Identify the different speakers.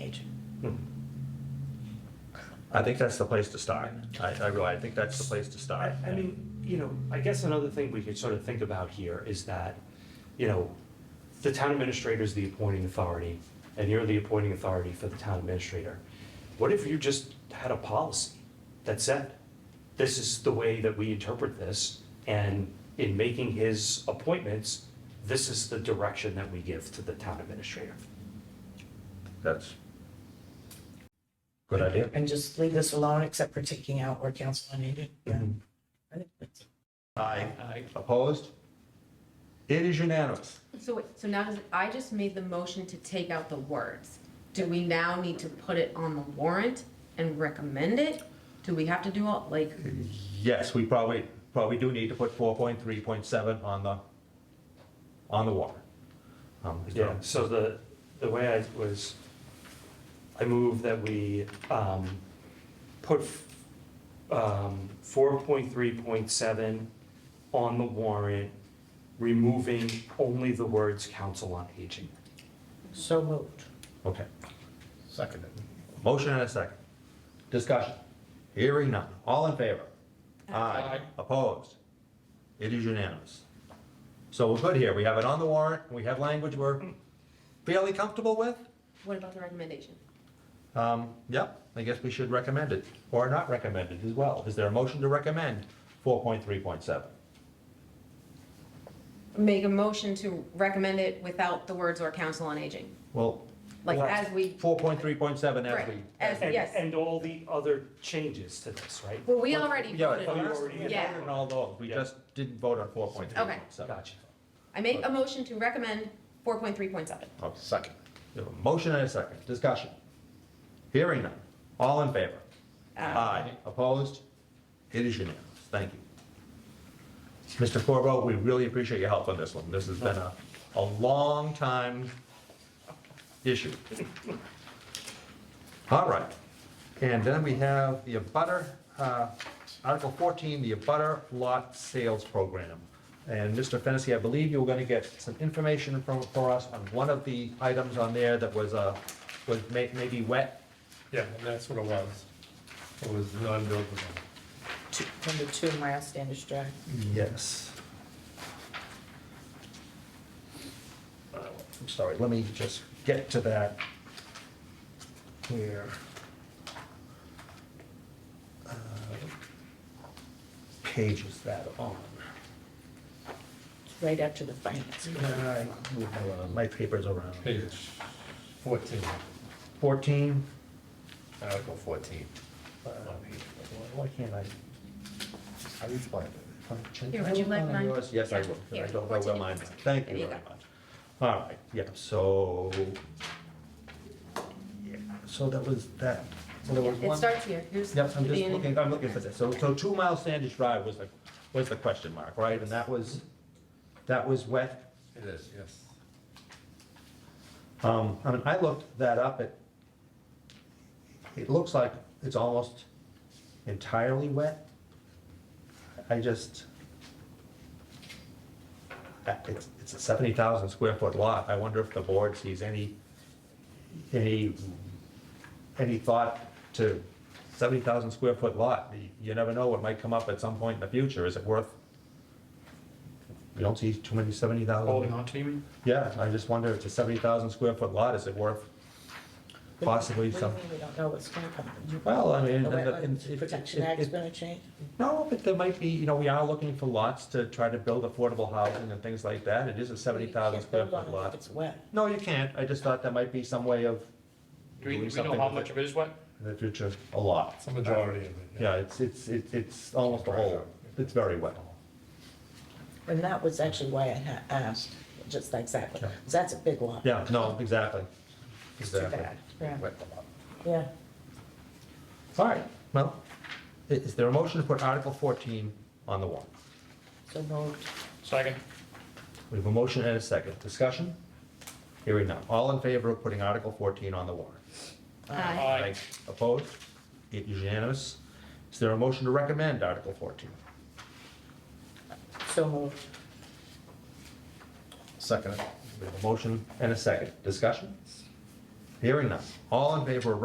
Speaker 1: Hmm. I think that's the place to start. I, I really, I think that's the place to start.
Speaker 2: I, I mean, you know, I guess another thing we could sort of think about here is that, you know, the town administrator is the appointing authority, and you're the appointing authority for the town administrator. What if you just had a policy that said, this is the way that we interpret this, and in making his appointments, this is the direction that we give to the town administrator?
Speaker 1: That's good idea.
Speaker 3: And just leave this alone except for taking out where council are needed. Yeah.
Speaker 1: Mm-hmm.
Speaker 3: I think that's-
Speaker 1: Aye. Opposed? It is unanimous.
Speaker 4: So, wait, so now, does it- I just made the motion to take out the words. Do we now need to put it on the warrant and recommend it? Do we have to do all, like,
Speaker 1: Yes, we probably, probably do need to put four point three point seven on the, on the warrant. Um, is there-
Speaker 2: Yeah, so the, the way I was, I move that we um, put um, 4.3.7 on the warrant, removing only the words council on aging.
Speaker 3: So moved.
Speaker 1: Okay.
Speaker 5: Seconded.
Speaker 1: Motion and a second. Discussion. Hearing none. All in favor? Aye. Opposed? It is unanimous. So we're good here. We have it on the warrant. We have language we're fairly comfortable with.
Speaker 4: what about the recommendation?
Speaker 1: Um, Yep, I guess we should recommend it, or not recommend it as well. Is there a motion to recommend 4.3.7?
Speaker 4: Make a motion to recommend it without the words or council on aging,
Speaker 1: Well,
Speaker 4: like
Speaker 2: Well,
Speaker 4: as we.
Speaker 1: 4.3.7 as
Speaker 4: Right,
Speaker 1: we,
Speaker 4: as,
Speaker 2: And,
Speaker 4: yes.
Speaker 2: and all the other changes to this, right?
Speaker 4: Well, we already
Speaker 1: yeah,
Speaker 4: voted
Speaker 1: but
Speaker 4: on
Speaker 2: you
Speaker 4: it.
Speaker 2: already-
Speaker 1: we
Speaker 4: Yeah.
Speaker 1: voted on all those, we
Speaker 2: Yeah.
Speaker 1: just didn't vote on 4.3.7.
Speaker 2: Gotcha.
Speaker 4: I make a motion to recommend 4.3.7.
Speaker 1: Okay.
Speaker 5: Second.
Speaker 1: We have a motion and a second, discussion. Hearing none, all in favor? Aye. Opposed? It is unanimous, thank you. Mr. Corbo, we really appreciate your help on this one, this has been a, a long time issue. All right, and then we have the abutter, uh, Article 14, the abutter lot sales program. And Mr. Fennessy, I believe you were going to get some information from, for us on one of the items on there that was, uh, was may- maybe wet.
Speaker 5: Yeah, and that's what it was. It was non-buildable.
Speaker 3: Two- Number two, Miles Standish Drive.
Speaker 1: Yes. I'm sorry, let me just get to that here. Uh, Page is that on?
Speaker 3: It's right after the finance.
Speaker 1: I move my- My paper's around.
Speaker 5: Page 14,
Speaker 1: Fourteen,
Speaker 5: Article 14.
Speaker 1: why can't I?
Speaker 5: I explained it.
Speaker 4: Here, would you like mine?
Speaker 1: Yours? Yes, I will.
Speaker 4: Here,
Speaker 1: I don't know
Speaker 4: what's
Speaker 1: where
Speaker 4: in it?
Speaker 1: mine is. Thank
Speaker 4: There
Speaker 1: you
Speaker 4: you
Speaker 1: very
Speaker 4: go.
Speaker 1: much. All right, yeah, so, yeah, so that was that. So there was
Speaker 4: It
Speaker 1: one.
Speaker 4: starts here, here's.
Speaker 1: Yep, I'm
Speaker 4: the
Speaker 1: just
Speaker 4: beginning.
Speaker 1: looking, I'm looking for this. So, so two mile Sandish Drive was the, was the question mark, right? And that was, that was wet.
Speaker 5: It is, yes.
Speaker 1: Um, I mean, I looked that up, it, it looks like it's almost entirely wet. I just, uh, it's, it's a seventy thousand square foot lot, I wonder if the board sees any, any, any thought to seventy thousand square foot lot, You- you never know what might come up at some point in the future, is it worth? We don't see too many seventy thousand.
Speaker 2: Holding on to you?
Speaker 1: Yeah, I just wonder, if it's a 70,000 square foot lot, is it worth possibly
Speaker 3: What do you
Speaker 1: some?
Speaker 3: mean we don't know what's going to come?
Speaker 1: Well, I mean.
Speaker 3: The
Speaker 1: and the- and
Speaker 3: Wetlands
Speaker 1: it-
Speaker 3: Protection
Speaker 1: it-
Speaker 3: Act's
Speaker 1: it-
Speaker 3: going to change?
Speaker 1: No, but there might be, you know, we are looking for lots to try to build affordable housing and things like that. It is a 70,000
Speaker 3: You can't
Speaker 1: square
Speaker 3: build on it
Speaker 1: foot
Speaker 3: if
Speaker 1: lot.
Speaker 3: It's wet.
Speaker 1: No, you can't. I just thought that might be some way of
Speaker 6: Do we, do
Speaker 1: doing
Speaker 6: we know
Speaker 1: something
Speaker 6: how
Speaker 1: with
Speaker 6: much
Speaker 1: it
Speaker 6: of it is wet?
Speaker 1: in the future, a lot.
Speaker 5: It's a majority of it.
Speaker 1: Yeah, it's, it's, it's it's almost a whole, it's very wet.
Speaker 3: And that was actually why I ha- asked, just exactly. 'Cause That's a big lot.
Speaker 1: Yeah, no, exactly.
Speaker 3: It's too
Speaker 1: Exactly.
Speaker 3: bad. Yeah.
Speaker 5: Wet a lot.
Speaker 3: Yeah.
Speaker 1: All right, well, i- is there a motion to put Article 14 on the warrant?
Speaker 3: So moved.
Speaker 6: Second.
Speaker 1: We have a motion and a second. Discussion? Hearing none. All in favor of putting Article 14 on the warrant?
Speaker 4: Aye.
Speaker 6: Aye.
Speaker 1: Opposed? It is unanimous. Is there a motion to recommend Article 14?
Speaker 3: So moved.
Speaker 5: Seconded.
Speaker 1: We have a motion and a second. Discussion? Hearing none. All in favor of